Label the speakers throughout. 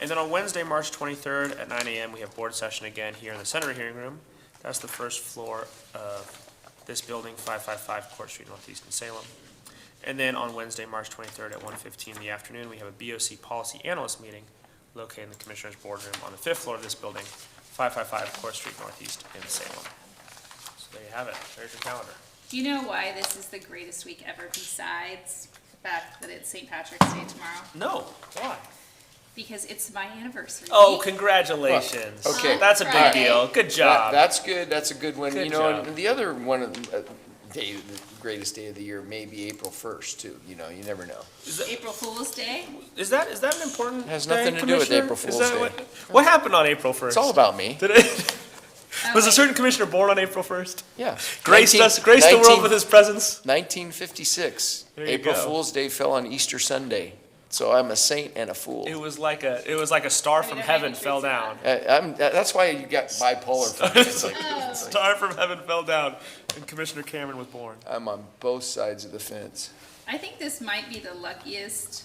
Speaker 1: And then on Wednesday, March 23rd at 9 AM, we have board session again here in the Senate Hearing Room. That's the first floor of this building, 555 Court Street Northeast in Salem. And then on Wednesday, March 23rd at 1:15 in the afternoon, we have a BOC Policy Analyst Meeting located in the Commissioners' Boardroom on the fifth floor of this building, 555 Court Street Northeast in Salem. So there you have it. There's your calendar.
Speaker 2: Do you know why this is the greatest week ever besides the fact that it's St. Patrick's Day tomorrow?
Speaker 1: No, why?
Speaker 2: Because it's my anniversary.
Speaker 1: Oh,
Speaker 2: week.
Speaker 1: congratulations.
Speaker 2: Well, okay.
Speaker 1: That's a big
Speaker 2: Friday.
Speaker 1: deal. Good
Speaker 3: That-
Speaker 1: job.
Speaker 3: That's good, that's a good one,
Speaker 1: Good
Speaker 3: you know,
Speaker 1: job.
Speaker 3: and the other one, of the- uh, day, the greatest day of the year may be April first too, you know, you never know.
Speaker 2: April Fool's Day?
Speaker 1: Is that, is that an important
Speaker 3: It has
Speaker 1: day,
Speaker 3: nothing to do with
Speaker 1: Commissioner?
Speaker 3: April
Speaker 1: Is
Speaker 3: Fool's
Speaker 1: that
Speaker 3: Day.
Speaker 1: what- What happened on April 1st?
Speaker 3: It's all about me,
Speaker 1: Did it,
Speaker 2: Oh,
Speaker 1: was a
Speaker 2: wait.
Speaker 1: certain commissioner born on April 1st?
Speaker 3: yeah.
Speaker 1: Graced us, graced the world with his presence?
Speaker 3: Nineteen fifty-six,
Speaker 1: There you
Speaker 3: April
Speaker 1: go.
Speaker 3: Fool's Day fell on Easter Sunday, so I'm a saint and a fool.
Speaker 1: It was like a, it was like a star from
Speaker 2: Wait,
Speaker 1: heaven
Speaker 2: I think
Speaker 1: fell
Speaker 2: it's not.
Speaker 1: down.
Speaker 3: Uh, I'm, that- that's why you got bipolar. for me. It's like- it's like,
Speaker 1: Star from heaven fell down and Commissioner Cameron was born.
Speaker 3: I'm on both sides of the fence.
Speaker 2: I think this might be the luckiest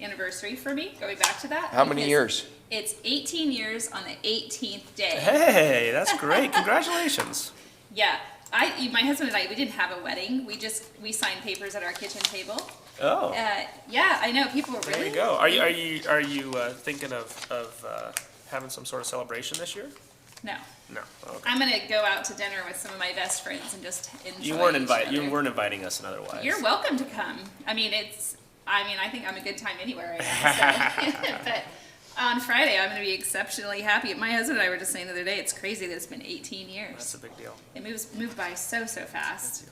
Speaker 2: anniversary for me, going back to that.
Speaker 3: How many
Speaker 2: because
Speaker 3: years?
Speaker 2: It's 18 years on the 18th day.
Speaker 1: Hey, that's great. Congratulations.
Speaker 2: Yeah. I, my husband and I, we didn't have a wedding. We just, we signed papers at our kitchen table.
Speaker 1: Oh,
Speaker 2: Uh, yeah, I know. People were
Speaker 1: there
Speaker 2: really
Speaker 1: you go. Are you, are you, are you uh, thinking of, of uh, having some sort of celebration this year?
Speaker 2: No.
Speaker 1: No, okay.
Speaker 2: I'm gonna go out to dinner with some of my best friends and just enjoy.
Speaker 1: You weren't
Speaker 2: each
Speaker 1: invited, you
Speaker 2: other.
Speaker 1: weren't inviting us in other ways.
Speaker 2: You're welcome to come. I mean, it's. I mean, I think I'm a good time anywhere right now. So. but on Friday, I'm gonna be exceptionally happy. My husband and I were just saying the other day, it's crazy that it's been 18
Speaker 1: That's
Speaker 2: years.
Speaker 1: a big deal.
Speaker 2: It moves moved by so so fast.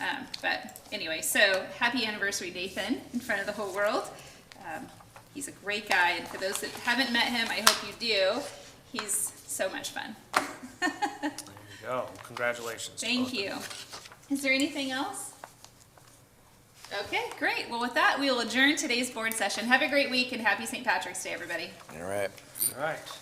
Speaker 2: Um, but anyway, so happy anniversary, Nathan, in front of the whole world. Um, he's a great guy, and for those that haven't met him, I hope you do. He's so much fun.
Speaker 1: There you go. Congratulations. to both
Speaker 2: Thank
Speaker 1: of
Speaker 2: you. Is there anything else? Okay, great. Well, with that, we will adjourn today's board session. Have a great week and happy St. Patrick's Day, everybody.
Speaker 3: All right.
Speaker 1: All right.